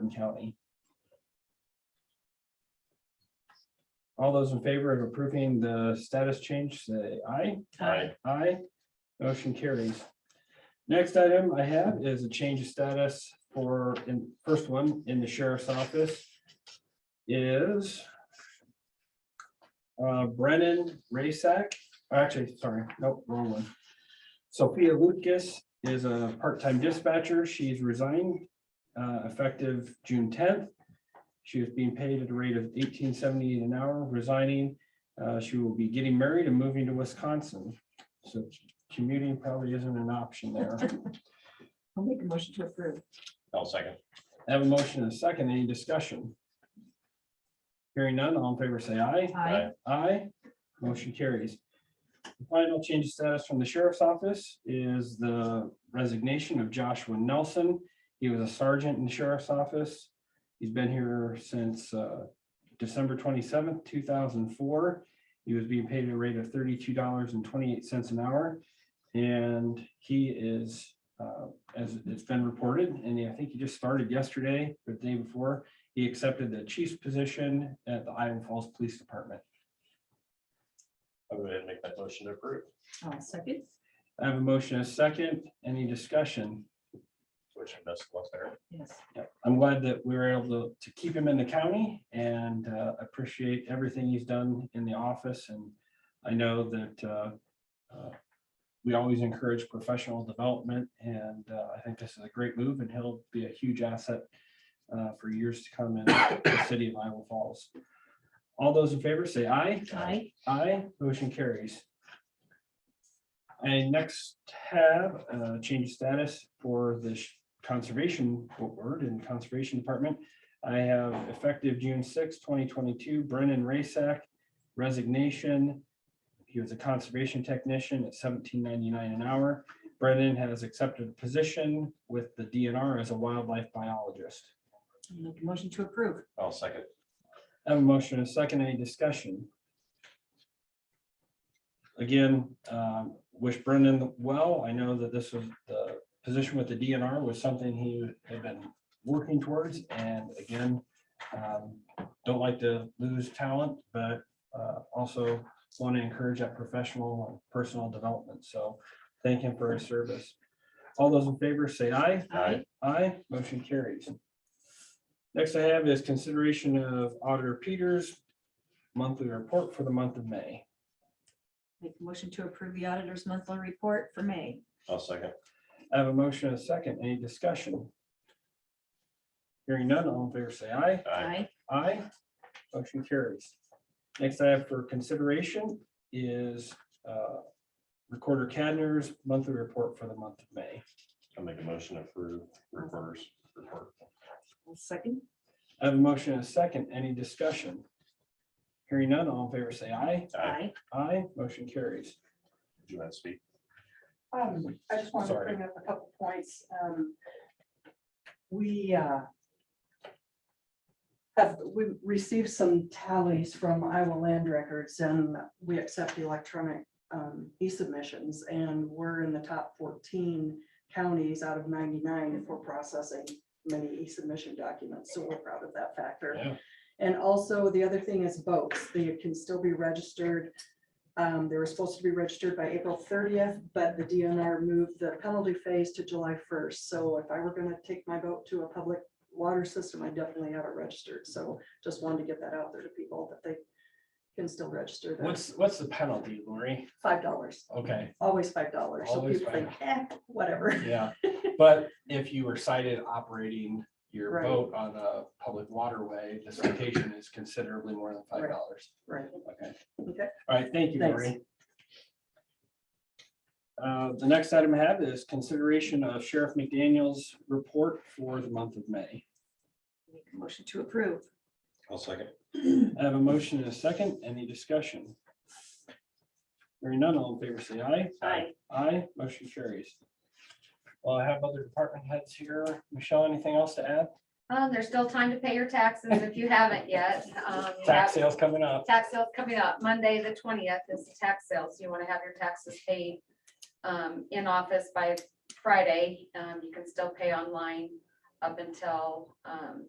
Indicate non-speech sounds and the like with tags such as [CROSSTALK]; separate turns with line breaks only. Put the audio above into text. Clinton County. All those in favor of approving the status change, say aye.
Aye.
Aye. Motion carries. Next item I have is a change of status for, in first one, in the sheriff's office is uh, Brennan Raisack, actually, sorry, nope, wrong one. Sophia Lucas is a part-time dispatcher. She's resigned uh, effective June tenth. She was being paid at a rate of eighteen seventy an hour, resigning. Uh, She will be getting married and moving to Wisconsin. So commuting probably isn't an option there.
I'll make a motion to approve.
I'll second.
I have a motion and a second. Any discussion? Hearing none, all in favor, say aye.
Aye.
Aye. Motion carries. The Final change of status from the sheriff's office is the resignation of Joshua Nelson. He was a sergeant in the sheriff's office. He's been here since uh, December twenty-seventh, two thousand four. He was being paid a rate of thirty-two dollars and twenty-eight cents an hour. And he is, uh, as it's been reported, and I think he just started yesterday, or the day before, he accepted the chief's position at the Iowa Falls Police Department.
I'll go ahead and make that motion to approve,
I'll Oh, second.
I have a motion, and a second, any discussion?
which I'm best left there.
Yes.
Yep, I'm glad that we were able to, to keep him in the county and uh, appreciate everything he's done in the office and I know that uh, uh, we always encourage professional development and uh, I think this is a great move and he'll be a huge asset uh, for years to come in the city of Iowa Falls. All those in favor say aye.
Aye.
Aye, motion carries. I next have uh change of status for the sh- conservation board and conservation department. I have effective June sixth, twenty twenty-two, Brennan Rasak resignation. He was a conservation technician at seventeen ninety-nine an hour. Brennan has accepted a position with the DNR as a wildlife biologist.
I'll Make a motion to approve.
I'll second.
I have a motion and a second. Any discussion? Again, um, wish Brendan well. I know that this was the position with the DNR was something he had been working towards. And again, um, don't like to lose talent, but uh, also want to encourage that professional and personal development. So thank him for his service. All those in favor, say aye.
Aye.
Aye, motion carries. Next I have is consideration of Auditor Peters' monthly report for the month of May.
Make a motion to approve the auditor's monthly report for May.
I'll second.
I have a motion and a second. Any discussion? Hearing none, all in favor say aye.
Aye.
Aye. Motion carries. Next I have for consideration is uh, Recorder Cadner's monthly report for the month of May.
I'll make a motion to approve reporters report.
I'll Second.
I have a motion and a second. Any discussion? Hearing none, all in favor say aye.
Aye.
Aye. Motion carries.
Do you want to speak?
Um, I just wanted to
Sorry.
bring up a couple points. Um, we, uh, have, we received some tallies from Iowa Land Records and we accept electronic, um, e-submissions and we're in the top fourteen counties out of ninety-nine for processing many e-submission documents. So we're proud of that factor.
Yeah.
And also, the other thing is boats. They can still be registered. Um, they were supposed to be registered by April thirtieth, but the DNR moved the penalty phase to July first. So if I were gonna take my boat to a public water system, I definitely have it registered. So just wanted to get that out there to people that they can still register that.
What's, what's the penalty, Lori?
Five dollars,
Okay,
always five dollars. So
Always
people think, eh, whatever. [LAUGHS]
yeah, but if you were cited operating your
Right.
boat on a public waterway, the citation is considerably more than five dollars.
Right.
Okay.
Okay.
All right, thank you,
Thanks.
Lori. Uh, the next item I have is consideration of Sheriff McDaniel's report for the month of May.
Make a motion to approve.
I'll second.
I have a motion and a second. Any discussion? Hearing none, all in favor, say aye.
Aye.
Aye, motion carries. Well, I have other department heads here. Michelle, anything else to add?
Um, there's still time to pay your taxes if you haven't yet. Um, you
Tax
have-
sales coming up.
Tax sales coming up. Monday, the twentieth is the tax sales. You want to have your taxes paid um, in office by Friday. Um, you can still pay online up until um,